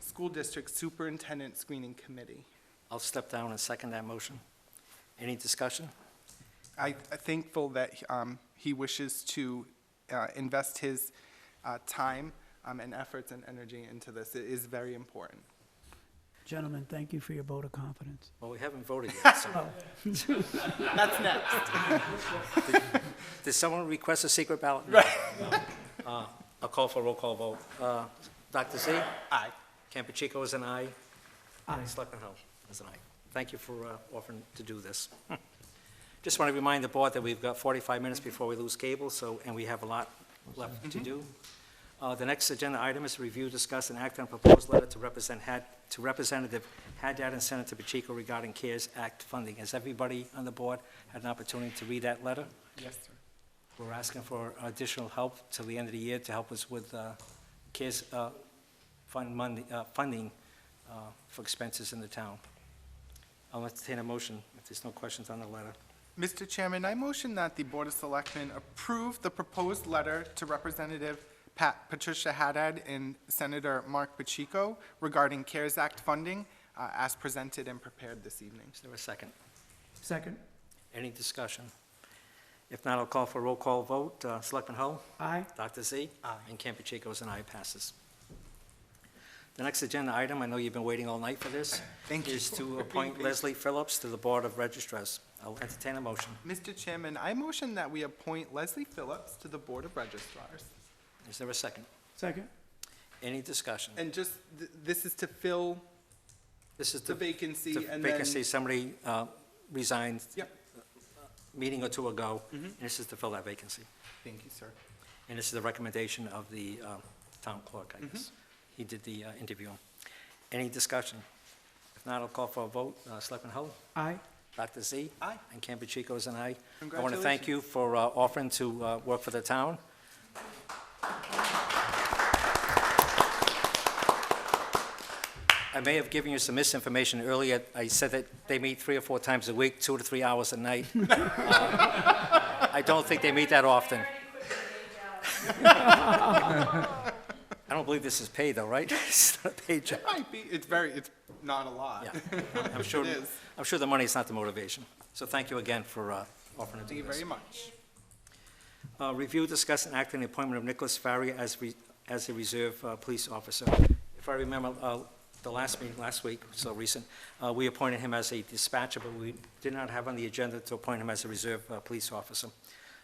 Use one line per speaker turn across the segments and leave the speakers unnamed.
School District Superintendent Screening Committee.
I'll step down and second that motion. Any discussion?
I I'm thankful that um, he wishes to uh, invest his uh, time um, and efforts and energy into this. It is very important.
Gentlemen, thank you for your vote of confidence.
Well, we haven't voted yet, so.
Oh,
That's next.
Did someone request a secret ballot? Right. I'll call for a roll call vote. Uh, Dr. Z?
Aye.
Campuchico is an aye.
Aye.
Selectman Hull is an aye. Thank you for uh, offering to do this. Just want to remind the board that we've got 45 minutes before we lose cable, so, and we have a lot left to do. Uh, The next agenda item is review, discuss, and act on proposed letter to represent, Had- to Representative Haddad and Senator Pacheco regarding CARES Act funding. Has everybody on the board had an opportunity to read that letter?
Yes, sir.
We're asking for additional help till the end of the year to help us with uh, CARES uh, fund money, uh, funding uh, for expenses in the town. I'll entertain a motion if there's no questions on the letter.
Mr. Chairman, I motion that the Board of Selectmen approve the proposed letter to Representative Pat Patricia Haddad and Senator Mark Pacheco regarding CARES Act funding uh, as presented and prepared this evening.
Is there a second?
Second,
Any discussion? If not, I'll call for a roll call vote. Uh, Selectman Hull?
aye.
Dr. Z? Aye. And Campuchico's an aye, passes. The next agenda item, I know you've been waiting all night for this.
Thank you
Is to
for being
appoint
patient.
Leslie Phillips to the Board of Registrars. I'll entertain a motion.
Mr. Chairman, I motion that we appoint Leslie Phillips to the Board of Registrars.
Is there a second?
Second,
Any discussion?
And just, th- this is to fill
This is
the
the
vacancy
the
and then.
vacancy, somebody uh, resigned
Yep,
a meeting or two ago.
Mm-hmm.
and This is to fill that vacancy.
thank you, sir.
And this is the recommendation of the um, town clerk, I guess.
Mm-hmm.
He did the uh, interview. Any discussion? If not, I'll call for a vote. Uh, Selectman Hull?
aye.
Dr. Z?
Aye.
And Campuchico is an aye. I want to thank you for uh, offering to uh, work for the town. I may have given you some misinformation earlier. I said that they meet three or four times a week, two to three hours a night. Uh, I don't think they meet that often. I don't believe this is paid, though, right? It's not a paid job.
Might be, it's very, it's not a lot.
Yeah, I'm sure,
It is.
I'm sure the money's not the motivation. So thank you again for uh, offering
Thank
to do
you
this.
very much.
Uh, Review, discuss, and act on the appointment of Nicholas Farrier as, re- as a reserve uh, police officer. If I remember, uh, the last meeting, last week, so recent, uh, we appointed him as a dispatcher, but we did not have on the agenda to appoint him as a reserve uh, police officer.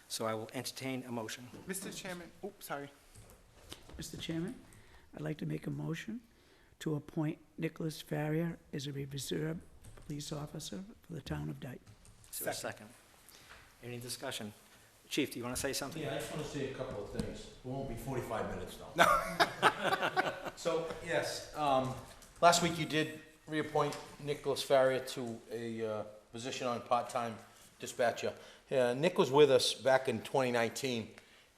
So I will entertain a motion.
Mr. Chairman, oh, sorry.
Mr. Chairman, I'd like to make a motion to appoint Nicholas Farrier as a reserve police officer for the town of Dayton.
Is there a second? Any discussion? Chief, do you want to say something?
Yeah, I just want to say a couple of things. It won't be 45 minutes, though. So, yes, um, last week you did reappoint Nicholas Farrier to a uh, position on part-time dispatcher. Yeah, Nick was with us back in 2019,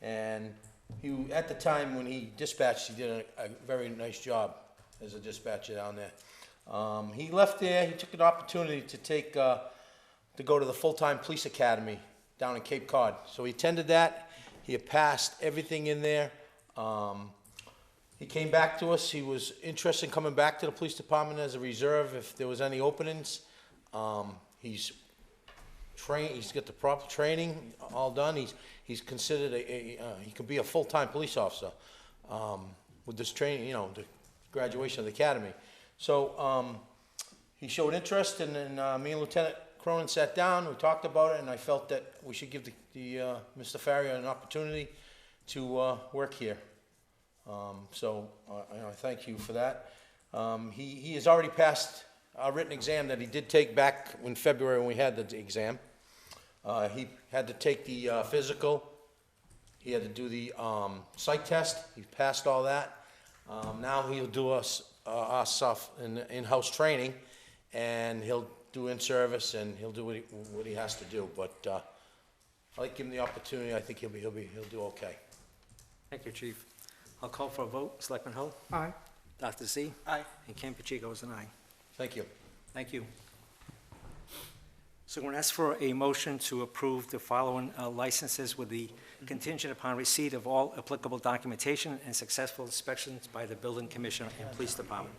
and he, at the time when he dispatched, he did a a very nice job as a dispatcher down there. Um, He left there, he took an opportunity to take uh, to go to the full-time police academy down in Cape Cod. So he attended that. He had passed everything in there. Um, he came back to us. He was interested in coming back to the police department as a reserve if there was any openings. Um, he's train. He's got the proper training all done. He's he's considered a, a uh, he could be a full-time police officer um, with this training. You know, the graduation of the academy. So um, he showed interest, and then uh, me and Lieutenant Cronin sat down. We talked about it, and I felt that we should give the, the uh, Mr. Farrier an opportunity to uh, work here. Um, so uh, I, I thank you for that. Um, he, he has already passed a written exam that he did take back in February when we had the exam. Uh, he had to take the uh, physical. He had to do the um, psych test. He passed all that. Um, now he'll do us uh, our stuff in in-house training, and he'll do in-service and he'll do what he, what he has to do. But uh, I like give him the opportunity. I think he'll be he'll be he'll do okay.
Thank you, Chief. I'll call for a vote. Selectman Hull?
Aye.
Dr. Z?
Aye.
And Campuchico is an aye.
Thank you.
Thank you. So I'm going to ask for a motion to approve the following uh, licenses with the contingent upon receipt of all applicable documentation and successful inspections by the building commissioner and police department.